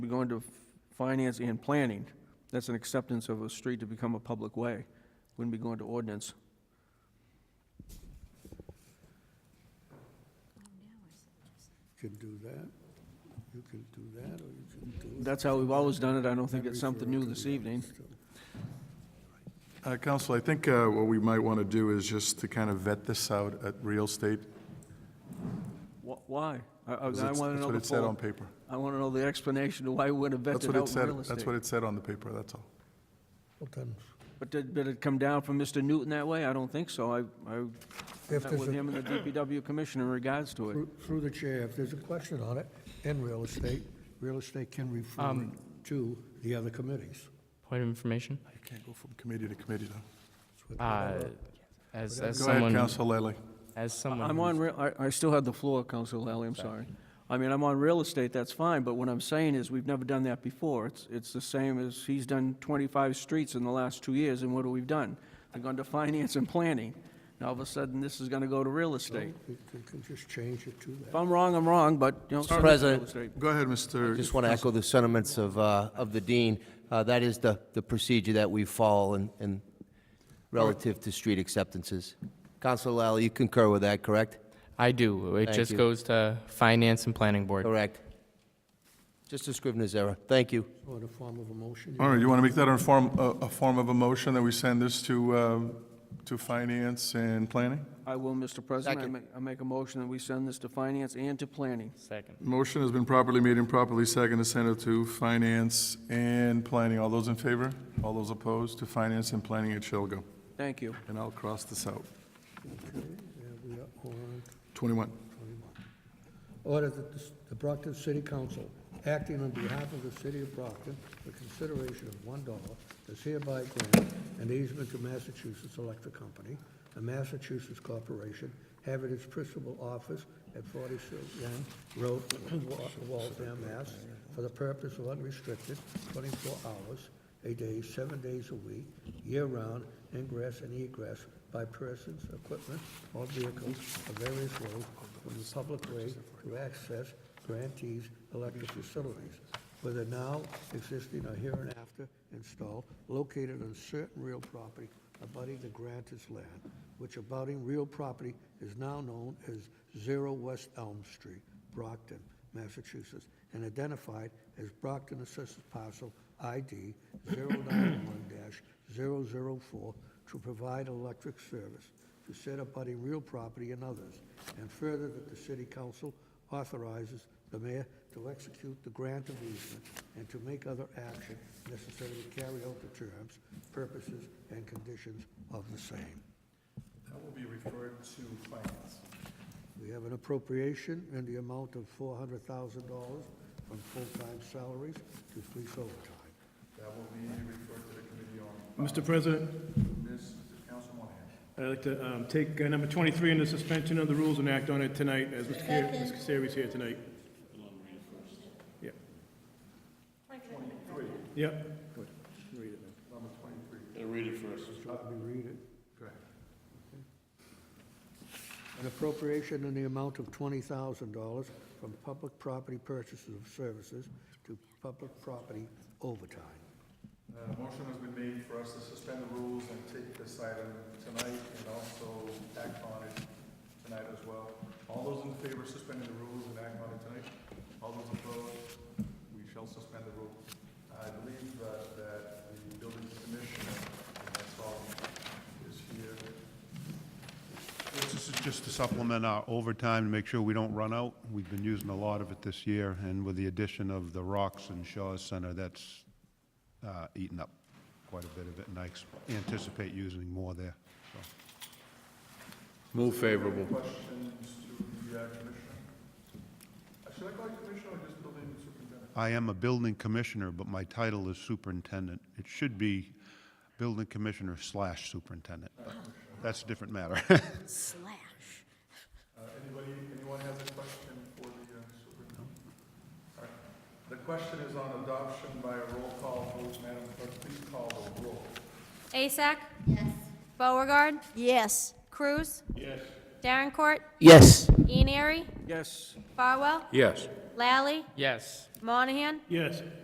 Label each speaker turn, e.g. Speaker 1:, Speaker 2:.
Speaker 1: We go into finance and planning. That's an acceptance of a street to become a public way. Wouldn't be going to ordinance.
Speaker 2: Could do that. You could do that, or you could do.
Speaker 1: That's how we've always done it. I don't think it's something new this evening.
Speaker 3: Uh, Counsel, I think uh, what we might want to do is just to kind of vet this out at real estate.
Speaker 1: Wh- Why? I, I I
Speaker 3: 'cause
Speaker 1: wanna
Speaker 3: it's- That's
Speaker 1: know
Speaker 3: what
Speaker 1: the
Speaker 3: it said
Speaker 1: full,
Speaker 3: on paper.
Speaker 1: I wanna know the explanation of why we would have
Speaker 3: That's
Speaker 1: vetted
Speaker 3: what it
Speaker 1: out
Speaker 3: said,
Speaker 1: real
Speaker 3: that's
Speaker 1: estate.
Speaker 3: what it said on the paper, that's all.
Speaker 1: But did, did it come down from Mr. Newton that way? I don't think so. I, I
Speaker 2: If
Speaker 1: met
Speaker 2: there's
Speaker 1: with
Speaker 2: a-
Speaker 1: him and the DPW commissioner in regards to it.
Speaker 2: Through through the chair, if there's a question on it, in real estate, real estate can refer it to the other committees.
Speaker 4: Point of information.
Speaker 3: You can't go from committee to committee, though.
Speaker 2: It's what-
Speaker 4: Uh, as as
Speaker 3: Go ahead,
Speaker 4: someone
Speaker 3: Counsel Lally.
Speaker 4: as someone
Speaker 1: I'm
Speaker 4: who's-
Speaker 1: on, real- I, I still have the floor, Council Lally, I'm sorry. I mean, I'm on real estate, that's fine, but what I'm saying is, we've never done that before. It's, it's the same as, he's done 25 streets in the last two years, and what have we done? They've gone to finance and planning. Now, all of a sudden, this is gonna go to real estate.
Speaker 2: You can- can just change it to
Speaker 1: If
Speaker 2: that.
Speaker 1: I'm wrong, I'm wrong, but, you know. so is real
Speaker 5: President.
Speaker 1: estate.
Speaker 3: Go ahead, Mr.
Speaker 5: Just want to echo the sentiments of, uh, of the dean. Uh, That is the, the procedure that we follow in, in relative to street acceptances. Counselor Lally, you concur with that, correct?
Speaker 4: I do. It
Speaker 5: Thank
Speaker 4: just
Speaker 5: you.
Speaker 4: goes to finance and planning board.
Speaker 5: Correct. Just a Scrivener's error. Thank you.
Speaker 2: Or in the form of a motion.
Speaker 3: All right, you want to make that a form, a a form of a motion that we send this to, um, to finance and planning?
Speaker 1: I will, Mr. President, I
Speaker 5: Second.
Speaker 1: make, I make a motion that we send this to finance and to planning.
Speaker 4: Second.
Speaker 3: Motion has been properly made and properly seconded to send it to finance and planning. All those in favor? All those opposed? To finance and planning, it shall go.
Speaker 1: Thank you.
Speaker 3: And I'll cross this out.
Speaker 2: Okay, there we are, on
Speaker 3: 21.
Speaker 2: Order that the s- the Brockton City Council, acting on behalf of the city of Brockton, for consideration of one dollar, is hereby granted an easement to Massachusetts Electric Company, a Massachusetts corporation, having its principal office at 40 Young Road, Wa- Waltham, Mass, for the purpose of unrestricted 24 hours a day, seven days a week, year-round ingress and egress by persons, equipment, or vehicles of various roads from the public way to access grantees' electric facilities, whether now existing or hereinafter installed, located on certain real property abutting the grantor's land, which abutting real property is now known as Zero West Elm Street, Brockton, Massachusetts, and identified as Brockton Assessors Parcel ID 091-004 to provide electric service to set abutting real property and others, and further that the city council authorizes the mayor to execute the grant of easement and to make other action necessary to carry out the terms, purposes, and conditions of the same.
Speaker 3: That will be referred to finance.
Speaker 2: We have an appropriation in the amount of four hundred thousand dollars from full-time salaries to police overtime.
Speaker 6: Mr. President, I'd like to um, take uh, number 23 under suspension of the rules and act on it tonight, as Mr. Ca- Mr. Casari's here tonight. Yeah. Yep.
Speaker 2: Let me read it. An appropriation in the amount of twenty thousand dollars from public property purchases of services to public property overtime.
Speaker 3: Uh, Motion has been made for us to suspend the rules and take this item tonight and also act on it tonight as well. All those in favor of suspending the rules and act on it tonight? All those opposed? We shall suspend the rules. I believe uh, that the building commissioner, and that's all, is here.
Speaker 7: This is just to supplement our overtime, to make sure we don't run out. We've been using a lot of it this year, and with the addition of the Rocks and Shaw's Center, that's uh, eaten up quite a bit of it, and I ex- anticipate using more there. so.
Speaker 8: Move favorable.
Speaker 3: Questions to the uh, commissioner? Uh, Should I call you commissioner or just building superintendent?
Speaker 7: I am a building commissioner, but my title is superintendent. It should be building commissioner slash superintendent, but that's a different matter.
Speaker 9: slash.
Speaker 3: Uh, Anybody, anyone has a question for the uh, superintendent? All right. The question is on adoption by a roll call vote. Madam Clerk, please call the roll.
Speaker 10: Asak? Yes. Beauregard?
Speaker 9: Yes.
Speaker 10: Cruz? Yes. Darrencourt?
Speaker 5: Yes.
Speaker 10: Ian Airy,
Speaker 11: Yes.
Speaker 10: Farwell,
Speaker 12: Yes.
Speaker 10: Lally,
Speaker 3: Yes.
Speaker 10: Monahan,
Speaker 6: Yes.